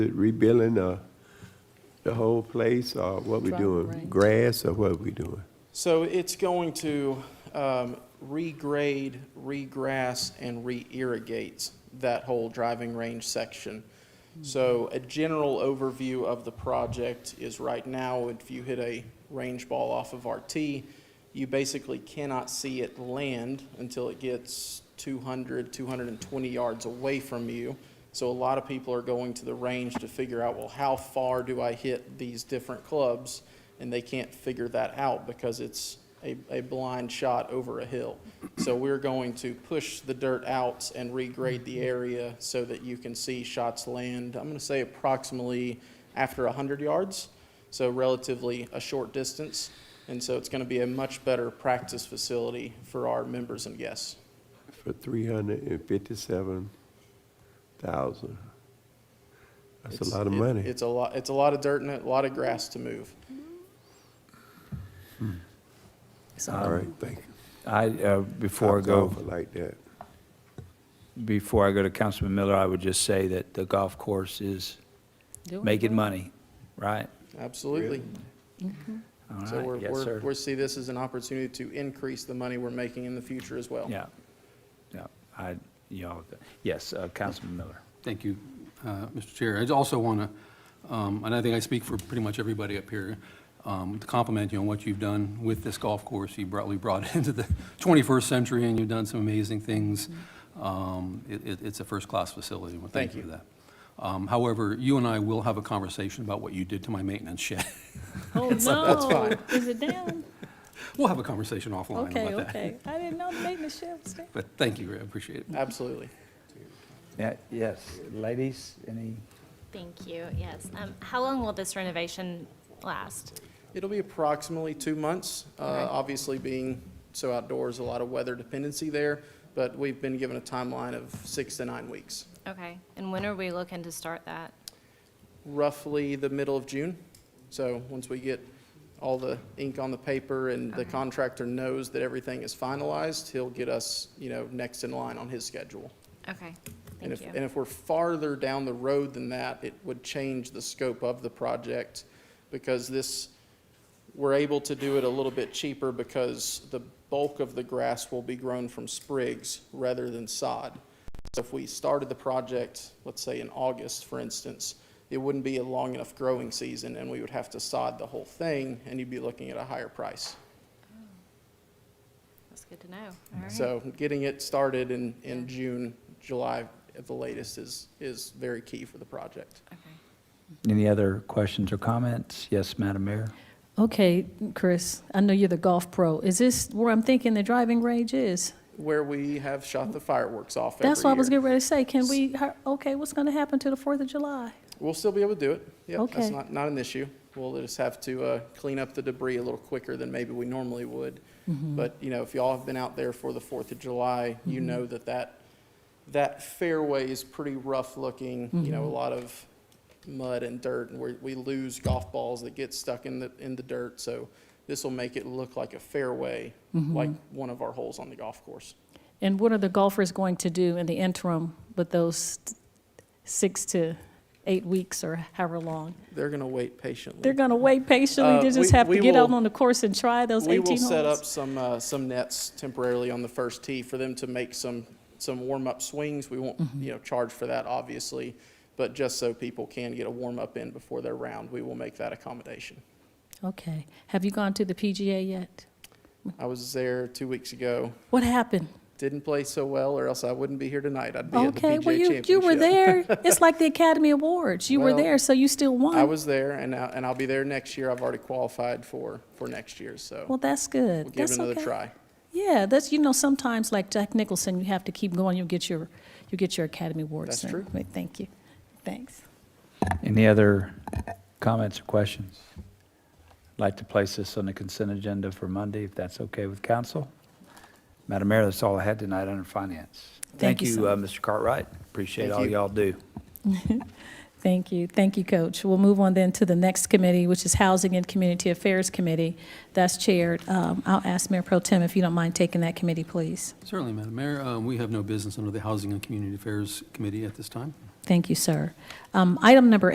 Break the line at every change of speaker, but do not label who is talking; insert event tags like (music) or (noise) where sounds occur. Rebuilding, uh, the whole place, or what we
Dry
doing?
range.
Grass, or what we doing?
So it's going to um, regrade, regrass, and re-irrigate that whole driving range section. So a general overview of the project is right now, if you hit a range ball off of RT, you basically cannot see it land until it gets 200, 220 yards away from you. So a lot of people are going to the range to figure out, well, how far do I hit these different clubs? and they can't figure that out because it's a, a blind shot over a hill. So we're going to push the dirt out and regrade the area so that you can see shots land, I'm gonna say approximately after hundred yards, so relatively a short distance. And so it's gonna be a much better practice facility for our members and guests.
For three hundred and fifty-seven thousand. That's a
It's-
lot of
it-
money.
It's a lot, it's a lot of dirt and a lot of grass to move.
All right, thank you.
I, uh, before I
It's
go,
awful Like that.
before I go to Councilman Miller, I would just say that the golf course is
Doing
making
well.
money, right?
Absolutely.
All
So
right.
we're,
Yes,
we're,
sir.
we see this as an opportunity to increase the money we're making in the future as well.
Yeah, yeah, I, you know, yes, uh, Councilman Miller.
Thank you, uh, Mr. Chair. I also want to, and I think I speak for pretty much everybody up here, um, to compliment you on what you've done with this golf course. You brought, we brought (laughs) it into the 21st century, and you've done some amazing things. Um, it- it- It's a first-class facility, and we thank
Thank
you for
you.
that. Um, However, you and I will have a conversation about what you did to my maintenance shed. (laughs)
Oh, no. Is it down?
We'll have a conversation offline about that.
Okay, okay. I didn't know the maintenance shed was down.
But thank you, I appreciate it.
Absolutely.
Yeah, yes, ladies, any?
Thank you, yes. Um, How long will this renovation last?
It'll be approximately two months, uh, obviously being so outdoors, a lot of weather dependency there, but we've been given a timeline of six to nine weeks.
Okay, and when are we looking to start that?
Roughly the middle of June. So once we get all the ink on the paper and the contractor knows that everything is finalized, he'll get us, you know, next in line on his schedule.
Okay,
And
thank
if, and
you.
if we're farther down the road than that, it would change the scope of the project because this, we're able to do it a little bit cheaper because the bulk of the grass will be grown from sprigs rather than sod. So if we started the project, let's say in August, for instance, it wouldn't be a long enough growing season and we would have to sod the whole thing and you'd be looking at a higher price.
That's good to know. All right.
So getting it started in,
Yeah.
in June, July at the latest is, is very key for the project.
Okay.
Any other questions or comments? Yes, Madam Mayor?
Okay, Chris, I know you're the golf pro. Is this where I'm thinking the driving range is?
where we have shot the fireworks off every
That's what I was
year.
getting ready to say. Can we, hi- okay, what's going to happen to the Fourth of July?
We'll still be able to do it. Yep,
Okay.
that's not, not an issue. We'll just have to uh, clean up the debris a little quicker than maybe we normally would.
Mm-hmm.
But you know, if y'all have been out there for the Fourth of July, you know that that that fairway is pretty rough looking. You
Mm-hmm.
know, a lot of mud and dirt, and we we lose golf balls that get stuck in the in the dirt. So this will make it look like a fairway,
Mm-hmm.
like one of our holes on the golf course.
And what are the golfers going to do in the interim with those six to eight weeks or however long?
They're gonna wait patiently.
They're going to wait patiently,
Uh,
they
we-
just have to
we
get out
will-
on the course and try those 18
We
holes?
will set up some, uh, some nets temporarily on the first tee for them to make some, some warm-up swings. We won't,
Mm-hmm.
you know, charge for that, obviously, but just so people can get a warm-up in before their round, we will make that accommodation.
Okay. Have you gone to the PGA yet?
I was there two weeks ago,
What happened?
didn't play so well, or else I wouldn't be here tonight. I'd be at the PGA
Okay, well, you,
Championship.
you were there.
(laughs)
It's like the Academy Awards. You were
Well,
there, so you still
I
won.
was there, and, I- and I'll be there next year. I've already qualified for, for next year,
Well,
so
that's good.
we'll give
That's
it another
okay.
try.
Yeah, that's, you know, sometimes like Jack Nicholson, you have to keep going. You'll get your, you'll get your Academy Awards.
That's
soon.
true.
Wait, Thank you. Thanks.
Any other comments or questions? Like to place this on the consent agenda for Monday, if that's okay with council? Madam Mayor, that's all I had tonight under finance.
Thank you so
uh, Mr. Cartwright. Appreciate
Thank
all
you.
y'all do.
Thank you. Thank you, Coach. We'll move on then to the next committee, which is Housing and Community Affairs Committee. That's chaired. Um, I'll ask Mayor Pro Tem if you don't mind taking that committee, please.
Certainly, Madam Mayor, um, we have no business under the Housing and Community Affairs Committee at this time.
Thank you, sir. Um, item number